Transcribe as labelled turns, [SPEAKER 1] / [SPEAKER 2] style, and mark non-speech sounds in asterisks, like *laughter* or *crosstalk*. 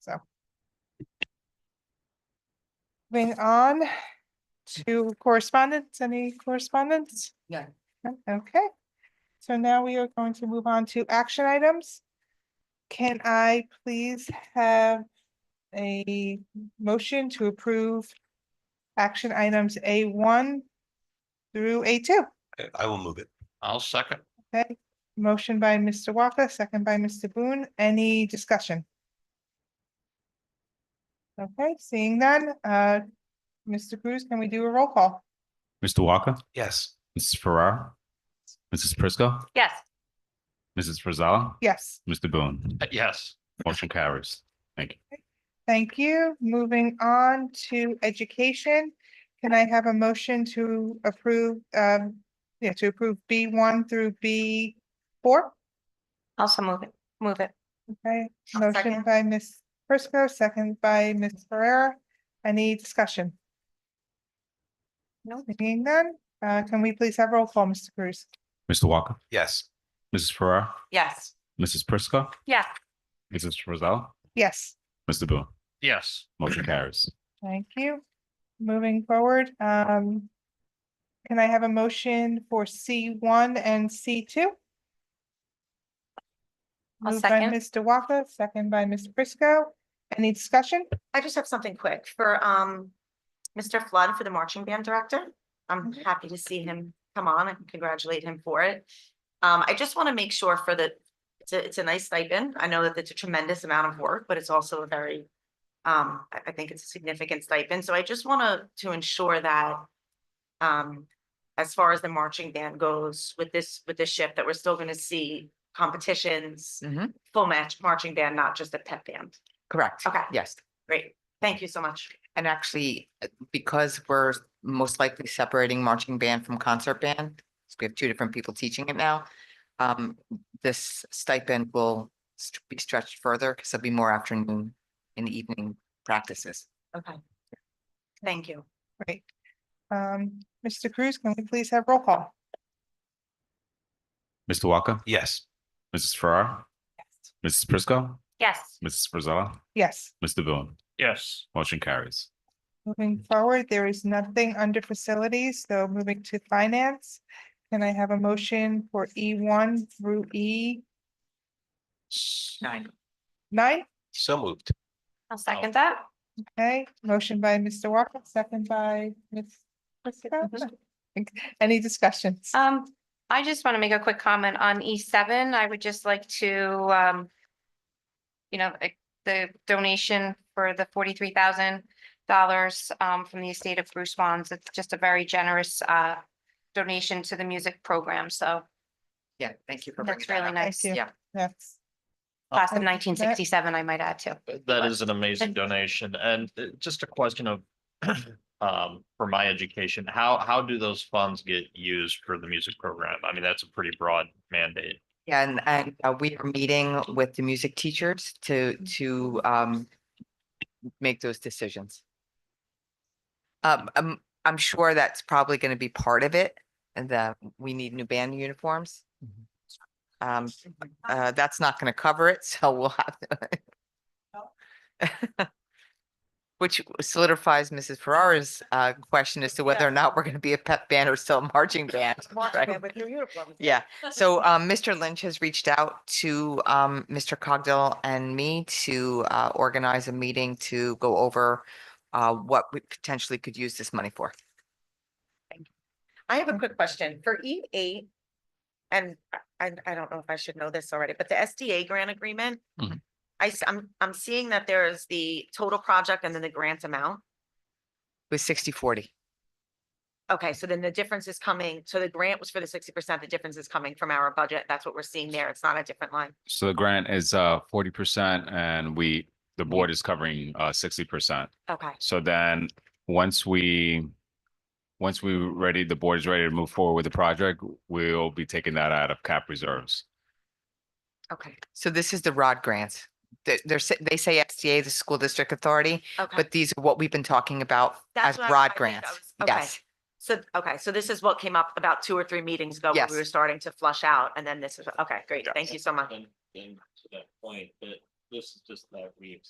[SPEAKER 1] so. Moving on to correspondence, any correspondence?
[SPEAKER 2] No.
[SPEAKER 1] No? Okay, so now we are going to move on to action items. Can I please have a motion to approve action items A one through A two?
[SPEAKER 3] I- I will move it.
[SPEAKER 4] I'll second.
[SPEAKER 1] Okay, motion by Mr. Walker, second by Mr. Boone. Any discussion? Okay, seeing none, uh, Mr. Cruz, can we do a roll call?
[SPEAKER 5] Mr. Walker,
[SPEAKER 3] Yes.
[SPEAKER 5] Mrs. Farrar, Mrs. Prisco,
[SPEAKER 2] Yes.
[SPEAKER 5] Mrs. Frizella,
[SPEAKER 1] Yes,
[SPEAKER 5] Mr. Boone.
[SPEAKER 4] Uh, Yes,
[SPEAKER 5] Motion carries.
[SPEAKER 1] thank you. Moving on to education. Can I have a motion to approve, um, yeah, to approve B one through B four?
[SPEAKER 2] Also move it, move it.
[SPEAKER 1] Okay,
[SPEAKER 2] I'll
[SPEAKER 1] motion
[SPEAKER 2] second.
[SPEAKER 1] by Ms. Prisco, second by Ms. Ferrera. Any discussion?
[SPEAKER 2] No.
[SPEAKER 1] Seeing none, uh, can we please have roll call, Mr. Cruz?
[SPEAKER 5] Mr. Walker,
[SPEAKER 3] Yes.
[SPEAKER 5] Mrs. Farrar,
[SPEAKER 2] Yes.
[SPEAKER 5] Mrs. Prisco,
[SPEAKER 2] Yes.
[SPEAKER 5] Mrs. Frizella,
[SPEAKER 1] Yes,
[SPEAKER 5] Mr. Boone.
[SPEAKER 4] yes,
[SPEAKER 5] Motion carries.
[SPEAKER 1] thank you. Moving forward, um, can I have a motion for C one and C two?
[SPEAKER 2] I'll
[SPEAKER 1] Moved by
[SPEAKER 2] second.
[SPEAKER 1] Mr. Walker, second by Ms. Prisco. Any discussion?
[SPEAKER 6] I just have something quick for um Mr. Flood for the marching band director. I'm
[SPEAKER 1] Mhm.
[SPEAKER 6] happy to see him come on and congratulate him for it. Um, I just want to make sure for the, it's a, it's a nice stipend. I know that it's a tremendous amount of work, but it's also a very um, I, I think it's a significant stipend, so I just want to, to ensure that um, as far as the marching band goes with this, with this shift, that we're still going to see competitions,
[SPEAKER 2] Mhm.
[SPEAKER 6] full match marching band, not just a pep band.
[SPEAKER 2] Correct.
[SPEAKER 6] Okay.
[SPEAKER 2] Yes.
[SPEAKER 6] Great. Thank you so much.
[SPEAKER 2] And actually, uh, because we're most likely separating marching band from concert band, so we have two different people teaching it now. Um, this stipend will st- be stretched further because there'll be more afternoon and evening practices.
[SPEAKER 6] Okay. Thank you.
[SPEAKER 1] Great. Um, Mr. Cruz, can we please have roll call?
[SPEAKER 5] Mr. Walker,
[SPEAKER 3] Yes.
[SPEAKER 5] Mrs. Farrar, Mrs. Prisco,
[SPEAKER 6] Yes.
[SPEAKER 5] Mrs. Frizella,
[SPEAKER 1] Yes.
[SPEAKER 5] Mr. Boone.
[SPEAKER 4] yes,
[SPEAKER 5] Motion carries.
[SPEAKER 1] Moving forward, there is nothing under facilities, so moving to finance. Can I have a motion for E one through E
[SPEAKER 2] Nine.
[SPEAKER 1] nine?
[SPEAKER 3] So moved.
[SPEAKER 6] I'll
[SPEAKER 2] Oh.
[SPEAKER 6] second that.
[SPEAKER 1] Okay, motion by Mr. Walker, second by Ms. Prisco. Any discussions?
[SPEAKER 7] Um, I just want to make a quick comment on E seven. I would just like to, um, you know, eh, the donation for the forty-three thousand dollars, um, from the estate of Bruce Wands. It's just a very generous, uh, donation to the music program. So
[SPEAKER 2] Yeah, thank you for bringing
[SPEAKER 7] that's
[SPEAKER 2] that
[SPEAKER 7] really
[SPEAKER 2] up.
[SPEAKER 7] nice.
[SPEAKER 1] you.
[SPEAKER 2] Yeah,
[SPEAKER 1] Yes,
[SPEAKER 7] Class of
[SPEAKER 1] And that-
[SPEAKER 7] nineteen sixty-seven, I might add too.
[SPEAKER 4] that is an amazing donation and uh, just a question of. *clears throat* Um, for my education, how, how do those funds get used for the music program? I mean, that's a pretty broad mandate.
[SPEAKER 2] Yeah, and, and uh, we are meeting with the music teachers to, to, um, make those decisions. Um, I'm, I'm sure that's probably going to be part of it, and that we need new band uniforms. Um, uh, that's not going to cover it, *laughs* so we'll have to. *laughs* Which solidifies Mrs. Ferrara's, uh, question as to whether or not we're going to be a pep band or still a marching band. right?
[SPEAKER 6] *laughs*
[SPEAKER 2] Yeah, so um, Mr. Lynch has reached out to um, Mr. Cogdill and me to uh, organize a meeting to go over uh, what we potentially could use this money for.
[SPEAKER 6] I have a quick question for E eight. And I- I, I don't know if I should know this already, but the SDA grant agreement.
[SPEAKER 2] Mm-hmm.
[SPEAKER 4] Mhm.
[SPEAKER 6] I, am I'm seeing that there is the total project and then the grant amount.
[SPEAKER 2] With sixty forty,
[SPEAKER 6] Okay, so then the difference is coming, so the grant was for the sixty percent, the difference is coming from our budget. That's what we're seeing there. It's not a different line.
[SPEAKER 5] So the grant is uh forty percent and we, the board is covering uh sixty percent.
[SPEAKER 6] Okay,
[SPEAKER 5] So then, once we, once we ready, the board is ready to move forward with the project, we'll be taking that out of cap reserves.
[SPEAKER 6] okay,
[SPEAKER 2] so this is the Rod grants. They- They're, s- they say SDA, the School District Authority,
[SPEAKER 6] okay.
[SPEAKER 2] but these are what we've been talking about
[SPEAKER 6] That's
[SPEAKER 2] as
[SPEAKER 6] what I- I
[SPEAKER 2] Rod
[SPEAKER 6] think I
[SPEAKER 2] grants.
[SPEAKER 6] was- okay.
[SPEAKER 2] Yes,
[SPEAKER 6] So, okay, so this is what came up about two or three meetings ago. when
[SPEAKER 2] Yes.
[SPEAKER 6] We were starting to flush out and then this is, okay, great. Thank you so much.
[SPEAKER 8] And, and to that point, that this is just that we